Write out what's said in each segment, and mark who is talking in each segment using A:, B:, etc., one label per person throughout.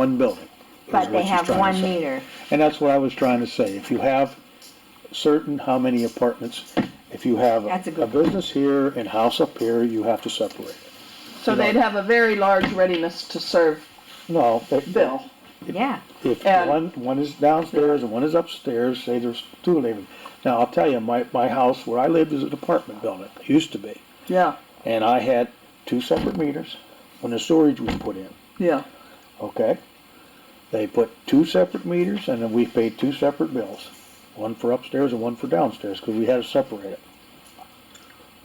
A: one building. is
B: But
A: what
B: they
A: she's
B: have
A: trying to
B: one
A: say.
B: meter.
A: And that's what I was trying to say, if you have certain how many apartments, if you have
B: That's a
A: a
B: good
A: business here and house up here, you have to separate.
C: So they'd have a very large readiness to serve
A: No, if,
C: bill.
B: Yeah,
A: if
B: uh,
C: And-
A: one, one is downstairs and one is upstairs, say there's two living. Now, I'll tell you, my, my house where I lived is an apartment building, it used to be,
C: Yeah,
A: and I had two separate meters when the storage was put in.
C: yeah.
A: okay? They put two separate meters, and then we paid two separate bills, one for upstairs and one for downstairs, because we had to separate it.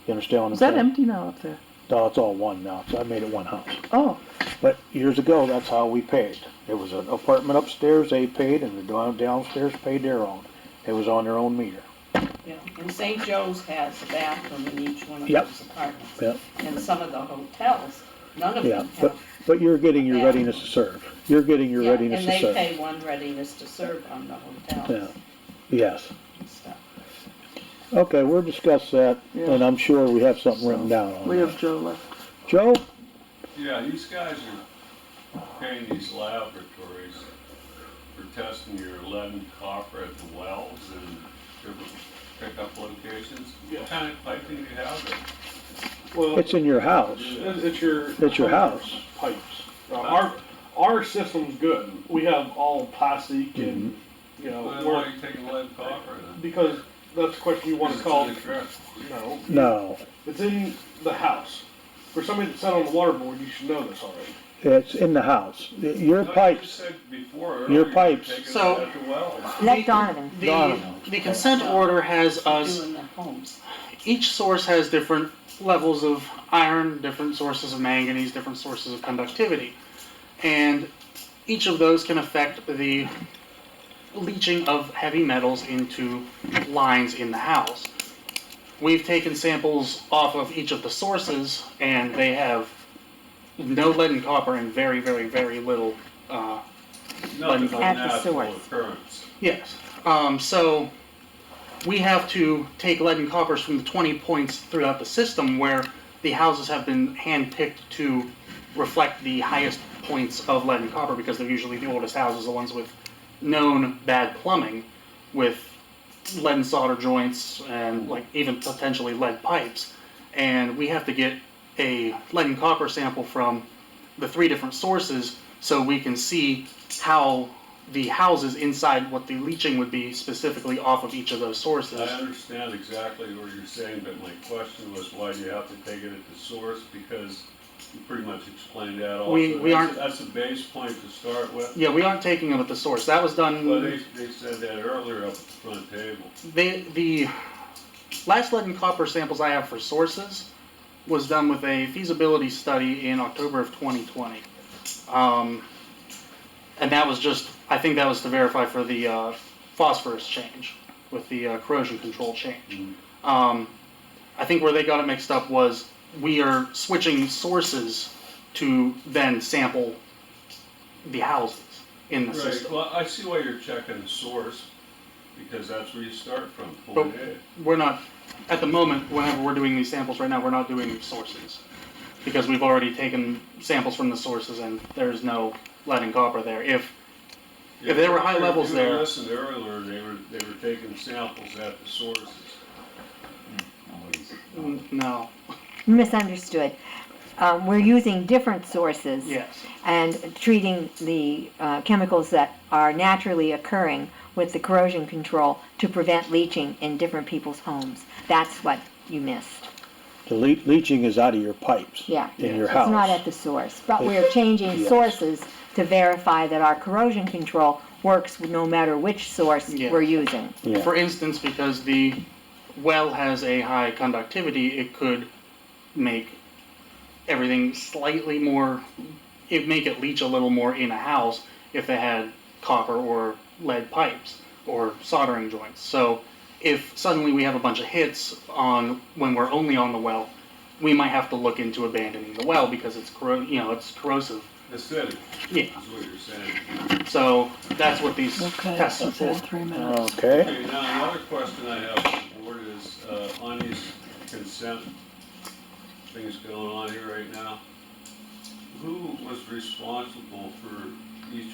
A: You understand what I'm
C: Is that
A: saying?
C: empty now up there?
A: No, it's all one now, so I made it one house.
C: Oh,
A: But years ago, that's how we paid. There was an apartment upstairs, they paid, and the down- downstairs paid their own. It was on their own meter.
D: Yeah, and St. Joe's has a bathroom in each one of
A: Yep.
D: those apartments.
A: Yep.
D: And some of the hotels, none of
A: Yeah,
D: them
A: but,
D: have.
A: but you're getting your
D: Yeah.
A: readiness to serve. You're getting your
D: Yeah,
A: readiness to
D: And they
A: serve.
D: pay one readiness to serve on the hotels
A: Yes.
D: and stuff.
A: Okay, we'll discuss that,
C: Yeah.
A: and I'm sure we have something written down on
C: we
A: that.
C: have Joe left.
A: Joe?
E: Yeah, these guys are paying these laboratories for testing your lead and copper at the wells and different pickup locations. What kind of piping do you have there?
F: Well,
A: It's in your house.
F: it's it's your.
A: It's your house.
F: Pipes. Uh, Our, our system's good. We have all plastic and,
A: Mm-hmm.
F: you know,
E: Why
F: we're-
E: are you taking lead and copper then?
F: because that's the question you wanna
E: It's
F: call,
E: in the ground.
F: no.
A: No,
F: It's in the house. For somebody that sat on the water board, you should know this already.
A: it's in the house. Your
E: No, you
A: pipes,
E: said before
A: Your
E: earlier you
A: pipes.
E: take it
G: So-
E: at the wells.
B: let Donovan.
G: The,
A: Donovan.
G: the consent order has us,
D: Doing the homes.
G: each source has different levels of iron, different sources of manganese, different sources of conductivity. And each of those can affect the leaching of heavy metals into lines in the house. We've taken samples off of each of the sources, and they have no lead and copper and very, very, very little uh,
E: Nothing but
B: At the
E: natural
B: source.
E: occurrence.
G: Yes. Um, so we have to take lead and coppers from the 20 points throughout the system where the houses have been handpicked to reflect the highest points of lead and copper because they're usually the oldest houses, the ones with known bad plumbing, with lead and solder joints and like even potentially lead pipes. And we have to get a lead and copper sample from the three different sources so we can see how the houses inside what the leaching would be specifically off of each of those
E: I
G: sources.
E: Uh, understand exactly what you're saying, but my question was why do you have to take it at the source? Because you pretty much explained that also.
G: We- we
E: That's a-
G: aren't-
E: That's a base point to start with.
G: Yeah, we aren't taking them at the source. That was done.
E: Well, they, they said that earlier up at the front table.
G: They, the last lead and copper samples I have for sources was done with a feasibility study in October of 2020. Um, and that was just, I think that was to verify for the uh, phosphorus change with the uh, corrosion control change. Um, I think where they got it mixed up was we are switching sources to then sample the houses in the
E: Right,
G: system.
E: well, I see why you're checking the source, because that's where you start from,
G: But
E: point A.
G: we're not, at the moment, whenever we're doing these samples right now, we're not doing sources. Because we've already taken samples from the sources and there's no lead and copper there. If, if there were high levels
E: If you
G: there-
E: listened earlier, they were, they were taking samples at the sources.
G: n- no,
B: Misunderstood. Um, we're using different sources.
G: yes.
B: And treating the, uh, chemicals that are naturally occurring with the corrosion control to prevent leaching in different people's homes. That's what you missed,
A: the le- leaching is out of your pipes
B: yeah.
A: in your
B: It's not at
A: house.
B: the source, but we're changing
A: Yes.
B: sources to verify that our corrosion control works no matter which source
G: Yeah.
B: we're using.
A: Yeah.
G: For instance, because the well has a high conductivity, it could make everything slightly more, it make it leach a little more in a house if they had copper or lead pipes or soldering joints. So if suddenly we have a bunch of hits on when we're only on the well, we might have to look into abandoning the well because it's corro- you know it's corrosive.
E: Acidic, is
G: Yeah.
E: what you're saying.
G: So that's what these tests are for.
A: Okay,
E: Okay, now, another question I have, for the board, is, uh, on these consent things going on here right now, who was responsible for each